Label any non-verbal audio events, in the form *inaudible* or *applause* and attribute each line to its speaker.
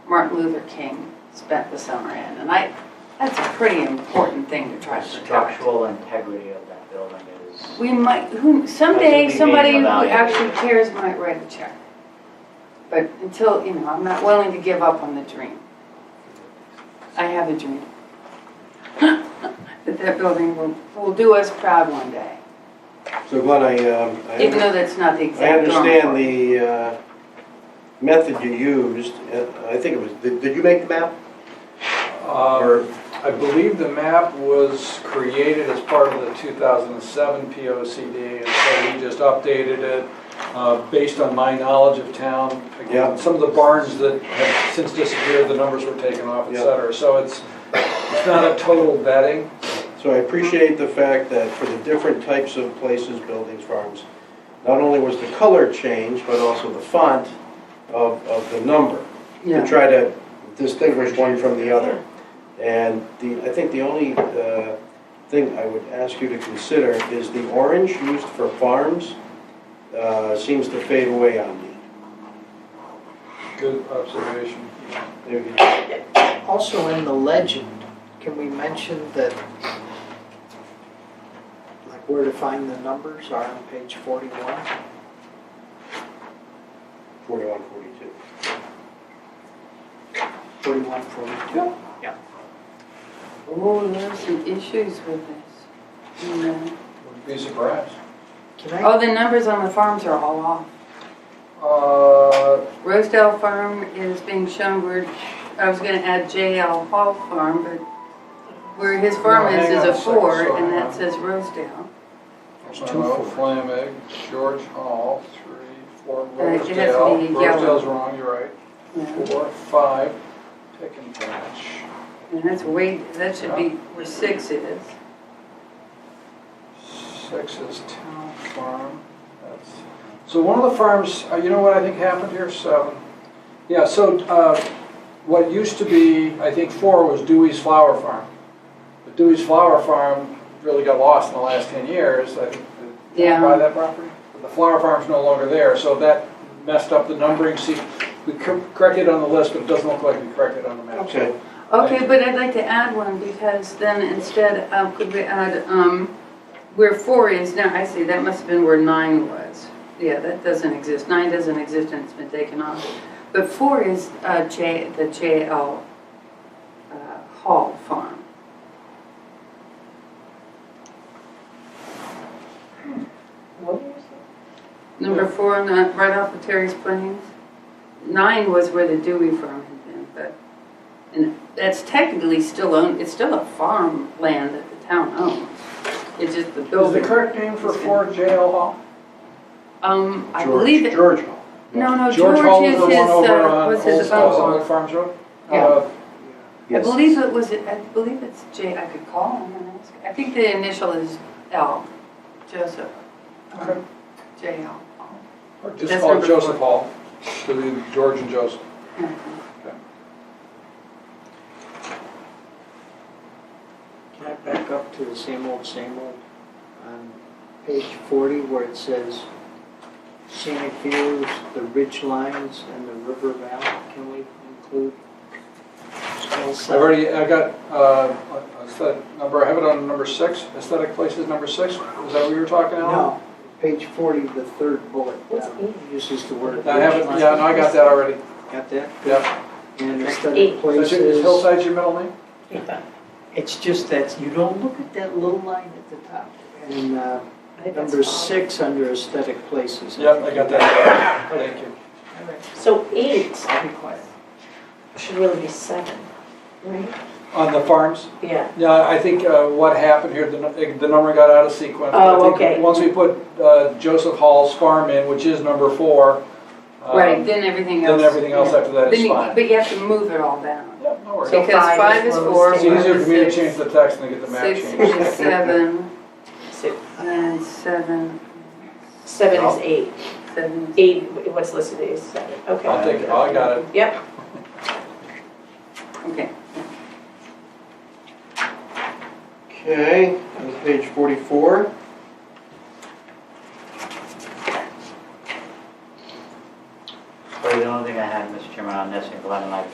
Speaker 1: Martin Luther King spent the summer in, and I, that's a pretty important thing to try
Speaker 2: The
Speaker 1: to protect.
Speaker 2: structural integrity of that building is,
Speaker 1: We might, who,
Speaker 2: That's
Speaker 1: someday,
Speaker 2: what we
Speaker 1: somebody
Speaker 2: mean
Speaker 1: who
Speaker 2: by value.
Speaker 1: actually cares might write a check. But until, you know, I'm not willing to give up on the dream. I have a dream. *laughs* That that building will, will do us proud one day,
Speaker 3: So Glenn, I, um, I
Speaker 1: even though that's not the
Speaker 3: I
Speaker 1: exact. drawing
Speaker 3: understand
Speaker 1: board.
Speaker 3: the uh, method you used. Uh, I think it was, did did you make the map?
Speaker 4: Um, I believe the map was created as part of the 2007 POCD, and so we just updated it uh, based on my knowledge of town. Again,
Speaker 3: Yeah.
Speaker 4: Some of the barns that have since disappeared, the numbers were taken off, et
Speaker 3: Yeah.
Speaker 4: cetera. So it's, it's not a total vetting.
Speaker 3: So I appreciate the fact that for the different types of places, buildings, farms, not only was the color changed, but also the font of, of the number. To
Speaker 1: Yeah,
Speaker 3: try to distinguish one from the other. And the, I think the only uh, thing I would ask you to consider is the orange used for farms uh, seems to fade away on me.
Speaker 4: Good observation.
Speaker 3: Maybe you can-
Speaker 5: Also in the legend, can we mention that, like where to find the numbers are on page 41?
Speaker 3: 41, 42.
Speaker 5: 41, 42?
Speaker 1: oh, there are some issues with this. you know.
Speaker 4: Wouldn't be surprised.
Speaker 5: Can I,
Speaker 1: Oh, Mm-hmm. the numbers on the farms are all off.
Speaker 4: Uh,
Speaker 1: Rosedale Farm is being shown where, I was gonna add JL Hall Farm, but where his farm
Speaker 4: No,
Speaker 1: is
Speaker 4: hang
Speaker 1: is
Speaker 4: on a
Speaker 1: a
Speaker 4: second,
Speaker 1: four,
Speaker 4: sorry,
Speaker 1: and
Speaker 4: hang on.
Speaker 1: that says Rosedale.
Speaker 5: there's two
Speaker 4: Monroe,
Speaker 5: for
Speaker 4: Flamig, George Hall, three, four,
Speaker 1: Uh, it has to be
Speaker 4: Rosedale.
Speaker 1: yellow.
Speaker 4: Rosedale's wrong, you're right.
Speaker 1: Yeah.
Speaker 4: Four, five, pick and match.
Speaker 1: And that's way, that should be where six is.
Speaker 4: Six is town farm. That's So one of the farms, uh, you know what I think happened here? Seven. Yeah, so uh, what used to be, I think four was Dewey's Flower Farm. But Dewey's Flower Farm really got lost in the last 10 years. I think, did
Speaker 1: Yeah.
Speaker 4: you buy that property? But The flower farm's no longer there, so that messed up the numbering. See, we cor- corrected on the list, but it doesn't look like we corrected on the map. So
Speaker 3: Okay,
Speaker 1: Okay, but I'd like to add one, because then instead of, could we add, um, where four is now, I see, that must have been where nine was. Yeah, that doesn't exist, nine doesn't exist and it's been taken off. But four is, uh, J, the JL, uh, Hall Farm. Number four, on the- right off of Terry's Plains. Nine was where the Dewey Farm had been, but, and that's technically still owned, it's still a farmland that the town owns. It's just the
Speaker 4: Is the
Speaker 1: building.
Speaker 4: correct name for four JL Hall?
Speaker 1: Um, I believe
Speaker 3: George,
Speaker 1: it,
Speaker 3: George Hall.
Speaker 1: no, no,
Speaker 4: George
Speaker 1: George
Speaker 4: Hall is
Speaker 1: is
Speaker 4: the
Speaker 1: his,
Speaker 4: one over
Speaker 1: uh,
Speaker 4: on
Speaker 1: was
Speaker 4: Old
Speaker 1: his
Speaker 4: Farms-
Speaker 1: own
Speaker 4: Old Farms Road?
Speaker 1: Yeah.
Speaker 4: Uh,
Speaker 1: I
Speaker 3: Yes.
Speaker 1: believe it was, I believe it's J, I could call him and ask. I think the initial is L, Joseph.
Speaker 4: Okay.
Speaker 1: J L.
Speaker 4: Or just
Speaker 1: That's
Speaker 4: call it
Speaker 1: number
Speaker 4: Joseph Hall, so the George and Joseph.
Speaker 5: can I back up to the same old, same old? On page 40 where it says scenic views, the ridge lines, and the river valley, can we include?
Speaker 4: I've already, I got, uh, aesthetic number, I have it on number six, aesthetic places number six, is that what you were talking about?
Speaker 5: No, page 40, the third bullet down, uses the word.
Speaker 4: I have it,
Speaker 5: ridge line.
Speaker 4: yeah, no, I got that already,
Speaker 5: Got that?
Speaker 4: yeah.
Speaker 5: And
Speaker 6: Eight.
Speaker 5: aesthetic
Speaker 4: Is
Speaker 5: places.
Speaker 4: your- is Hillside your middle name?
Speaker 5: It's just that you don't look at that little line at the top. And uh,
Speaker 6: I think that's
Speaker 5: number
Speaker 6: fine.
Speaker 5: six under aesthetic places.
Speaker 4: Yep, I got that, thank you.
Speaker 5: All right,
Speaker 6: So eight
Speaker 5: I'll be quiet.
Speaker 6: should really be seven, right?
Speaker 4: On the farms?
Speaker 6: Yeah.
Speaker 4: Yeah, I think uh, what happened here, the nu- the number got out of sequence.
Speaker 6: Oh,
Speaker 4: I think
Speaker 6: okay.
Speaker 4: Once we put uh, Joseph Hall's farm in, which is number four. um,
Speaker 1: Right, then everything
Speaker 4: Then
Speaker 1: else.
Speaker 4: everything else
Speaker 1: yeah.
Speaker 4: after that
Speaker 1: Then
Speaker 4: is
Speaker 1: you-
Speaker 4: fine.
Speaker 1: But you have to move it all down.
Speaker 4: Yep, no worries.
Speaker 6: So
Speaker 1: Because five
Speaker 6: five is
Speaker 1: is
Speaker 6: what
Speaker 1: four.
Speaker 6: was
Speaker 4: It's
Speaker 6: taken.
Speaker 4: easier for me to
Speaker 1: six-
Speaker 4: change the text than to get the map
Speaker 1: Six
Speaker 4: changed.
Speaker 1: is seven,
Speaker 6: So
Speaker 1: and seven,
Speaker 6: seven is eight.
Speaker 1: seven. is-
Speaker 6: Eight, what's listed is seven,
Speaker 4: I'll
Speaker 6: okay.
Speaker 4: take it, Oh, I got it.
Speaker 6: Yep,
Speaker 1: Okay,
Speaker 3: Okay, on page 44.
Speaker 2: Sorry, the only thing I had, Mr. Chairman, on this, and Glenn and I